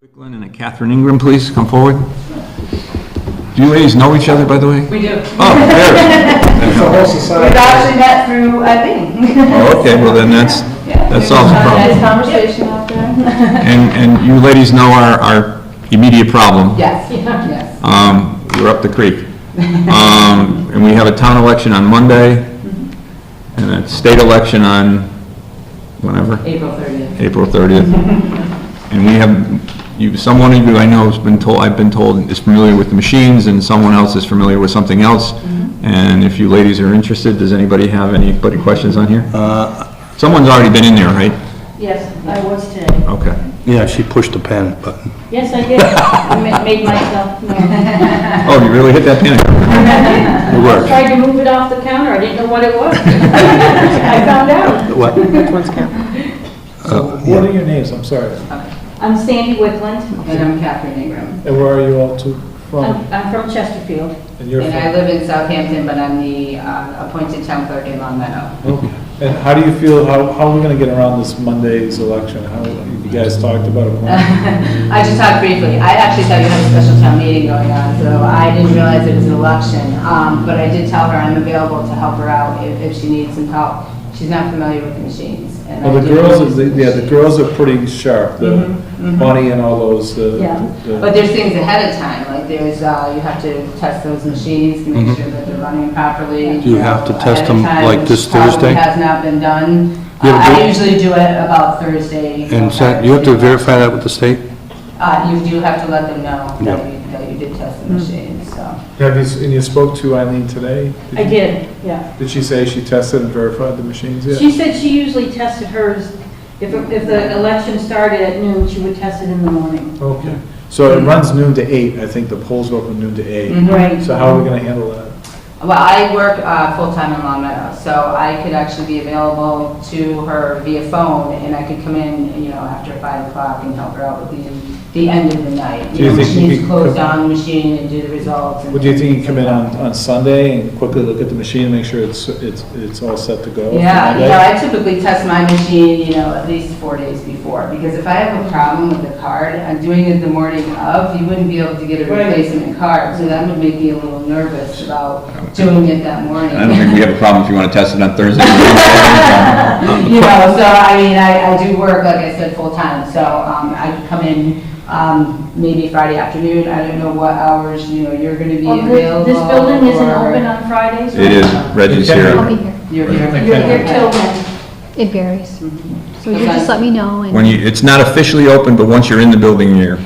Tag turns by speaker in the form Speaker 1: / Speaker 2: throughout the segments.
Speaker 1: Quickland and a Catherine Ingram, please, come forward. Do you ladies know each other, by the way?
Speaker 2: We do.
Speaker 1: Oh, there.
Speaker 2: We've actually met through a thing.
Speaker 1: Oh, okay, well then that's, that solves the
Speaker 2: Nice
Speaker 1: problem.
Speaker 2: conversation out there.
Speaker 1: And, and you ladies know our, our immediate problem.
Speaker 2: Yes, yes.
Speaker 1: Um, we're up the creek. Um, and we have a town election on Monday and a state election on whenever.
Speaker 2: April 30th.
Speaker 1: April 30th. And we have, you, someone of you I know has been told, I've been told is familiar with the machines, and someone else is familiar with something else. And if you ladies are interested, does anybody have any buddy questions on here?
Speaker 3: Uh,
Speaker 1: Someone's already been in there, right?
Speaker 4: Yes, I was today.
Speaker 1: Okay.
Speaker 3: Yeah, she pushed the panic button.
Speaker 4: Yes, I did. I ma- made myself known.
Speaker 1: Oh, you really hit that panic.
Speaker 3: It worked.
Speaker 4: Tried to move it off the counter, I didn't know what it was. I found out.
Speaker 3: What?
Speaker 5: What are your names, I'm sorry,
Speaker 4: I'm Sandy Wickland,
Speaker 2: And I'm Catherine Ingram.
Speaker 5: and where are you all two from?
Speaker 4: I'm I'm from Chesterfield.
Speaker 5: And you're
Speaker 2: And I
Speaker 5: from?
Speaker 2: live in Southampton, but I'm the uh, appointed town clerk in Long Meadow.
Speaker 5: Mm-hmm. And how do you feel, how, how are we gonna get around this Monday's election? How, you guys talked about it, plan?
Speaker 2: I just talked briefly. I actually thought you had a special town meeting going on, so I didn't realize it was an election. Um, But I did tell her I'm available to help her out if if she needs some help. She's not familiar with the machines. and I
Speaker 5: Well, the
Speaker 2: do-
Speaker 5: girls, is- yeah, the girls are pretty sharp, the
Speaker 4: Mm-hmm,
Speaker 5: money and all those, uh,
Speaker 2: Yeah,
Speaker 5: the-
Speaker 2: but there's things ahead of time, like there's, uh, you have to test those machines to make sure that they're running properly.
Speaker 3: Do Mm-hmm. you have to
Speaker 2: ahead
Speaker 3: test
Speaker 2: of
Speaker 3: them,
Speaker 2: time,
Speaker 3: like, this
Speaker 2: which probably
Speaker 3: Thursday?
Speaker 2: has not been done.
Speaker 3: You
Speaker 2: Uh,
Speaker 3: have to
Speaker 2: I
Speaker 3: do-
Speaker 2: usually do it about Thursday.
Speaker 3: And sent- you have to verify that with the state?
Speaker 2: Uh, you do have to let them know
Speaker 3: Yeah.
Speaker 2: that you, that you did test the machines, so.
Speaker 5: Have you, s- and you spoke to Eileen today?
Speaker 4: I
Speaker 5: you-
Speaker 4: did, yeah.
Speaker 5: Did she say she tested and verified the machines yet?
Speaker 4: She said she usually tested hers, if, if the election started at noon, she would test it in the morning.
Speaker 5: Okay, so it
Speaker 4: Mm-hmm.
Speaker 5: runs noon to eight, I think the polls open noon to eight,
Speaker 4: Right.
Speaker 5: so how are we gonna handle that?
Speaker 2: Well, I work uh, full-time in Long Meadow, so I could actually be available to her via phone, and I could come in, you know, after five o'clock and help her out with the, the end of the night.
Speaker 5: Do you
Speaker 2: know,
Speaker 5: think you
Speaker 2: machines
Speaker 5: could
Speaker 2: close
Speaker 5: come-
Speaker 2: down the machine and do the results and.
Speaker 5: Well, do you think you come in on, on Sunday and quickly look at the machine and make sure it's, it's, it's all set to go? for
Speaker 2: Yeah,
Speaker 5: Monday?
Speaker 2: you know, I typically test my machine, you know, at least four days before, because if I have a problem with the card, I'm doing it the morning of, you wouldn't be able to get a
Speaker 4: Right.
Speaker 2: replacement card, so that would make me a little nervous about doing it that morning.
Speaker 1: I don't think we have a problem if you want to test it on Thursday.
Speaker 2: You know, so I mean, I, I do work, like I said, full-time, so, um, I could come in, um, maybe Friday afternoon, I don't know what hours, you know, you're gonna be
Speaker 4: Well,
Speaker 2: available.
Speaker 4: This this building isn't
Speaker 2: or-
Speaker 4: open on Fridays?
Speaker 1: It is, Reggie's
Speaker 6: I'll
Speaker 1: here.
Speaker 6: be here.
Speaker 2: You're,
Speaker 5: Okay.
Speaker 2: you're.
Speaker 4: You're here till when?
Speaker 6: It varies. So you just let me know and.
Speaker 1: When you, it's not officially open, but once you're in the building, you're,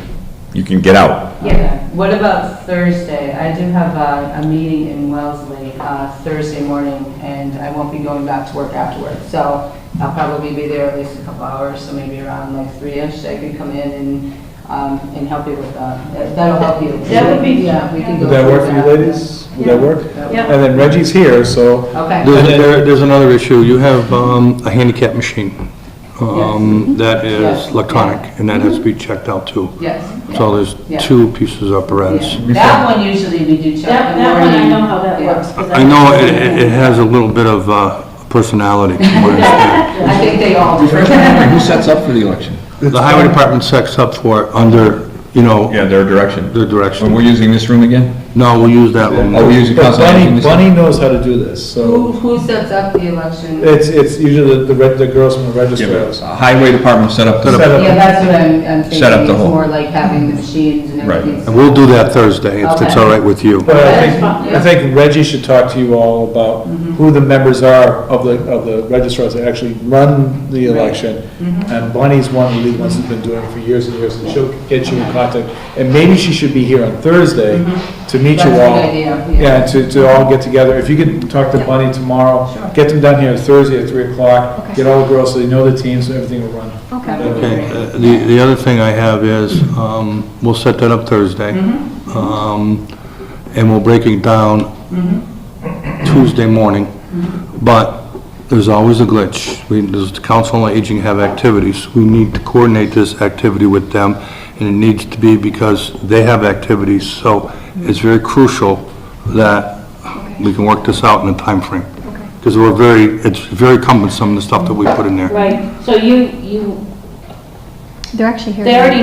Speaker 1: you can get out.
Speaker 2: Yeah, what about Thursday? I do have a, a meeting in Wellesley, uh, Thursday morning, and I won't be going back to work afterwards. So I'll probably be there at least a couple hours, so maybe around like three-ish, I can come in and, um, and help you with that. That- That'll help you.
Speaker 4: That would be-
Speaker 2: Yeah, we can go.
Speaker 5: Would that work
Speaker 2: through
Speaker 5: for you ladies? Would that work?
Speaker 4: Yeah.
Speaker 5: And then Reggie's here, so,
Speaker 2: Okay.
Speaker 3: There's, there- there's another issue. You have um, a handicap machine um, that is electronic, and that has to be checked out too.
Speaker 2: Yes.
Speaker 3: So there's
Speaker 2: Yeah.
Speaker 3: two pieces of apparatus.
Speaker 2: Yeah. That one usually we do check.
Speaker 4: That,
Speaker 2: in the
Speaker 4: that one, I
Speaker 2: morning.
Speaker 4: know how that
Speaker 2: Yeah.
Speaker 4: works. 'cause
Speaker 3: I know it, it- it has a little bit of uh, personality. from what I understand.
Speaker 2: I think they all do.
Speaker 1: Who sets up for the election?
Speaker 3: The highway department sets up for it under, you know,
Speaker 1: Yeah, their direction.
Speaker 3: the
Speaker 1: And we're
Speaker 3: direction.
Speaker 1: using this room again?
Speaker 3: No, we'll use that one.
Speaker 1: Oh, we use the
Speaker 5: but
Speaker 1: council.
Speaker 5: Bunny, Bunny knows how to do this,
Speaker 2: Who,
Speaker 5: so
Speaker 2: who sets up the election?
Speaker 5: it's, it's usually the, the reg- the girls from the
Speaker 1: Yeah,
Speaker 5: register.
Speaker 1: but Highway department set up the.
Speaker 5: Set up.
Speaker 2: Yeah, that's what I'm, I'm thinking.
Speaker 1: Set up the whole-
Speaker 2: It's more like having the machines and
Speaker 1: Right.
Speaker 2: everything.
Speaker 3: And we'll do that Thursday, if it's all right with you.
Speaker 5: But I think,
Speaker 4: That's fine.
Speaker 5: I think Reggie should talk to you all about
Speaker 2: Mm-hmm.
Speaker 5: who the members are of the, of the registrars that actually run the election.
Speaker 2: Mm-hmm.
Speaker 5: And Bunny's one of the ones that's been doing it for years and years, and she'll get you in contact. And maybe she should be here on Thursday to meet
Speaker 2: Mm-hmm. That's
Speaker 5: you all.
Speaker 2: a good idea, yeah.
Speaker 5: Yeah, to, to all get together. If you could talk to Bunny tomorrow, get them down here Thursday at three o'clock,
Speaker 6: Okay.
Speaker 5: get all the girls so they know the teams and everything will run.
Speaker 6: Okay.
Speaker 3: Okay, uh, the, the other thing I have is, um, we'll set that up Thursday. Um, and we'll break it down Tuesday morning. But there's always a glitch. We, does the council on aging have activities? We need to coordinate this activity with them, and it needs to be because they have activities. So it's very crucial that we can work this out in a time frame, Because we're very, it's very cumbersome, the stuff that we put in there.
Speaker 4: Right, so you, you,
Speaker 6: They're actually here.
Speaker 4: they
Speaker 6: now.
Speaker 4: already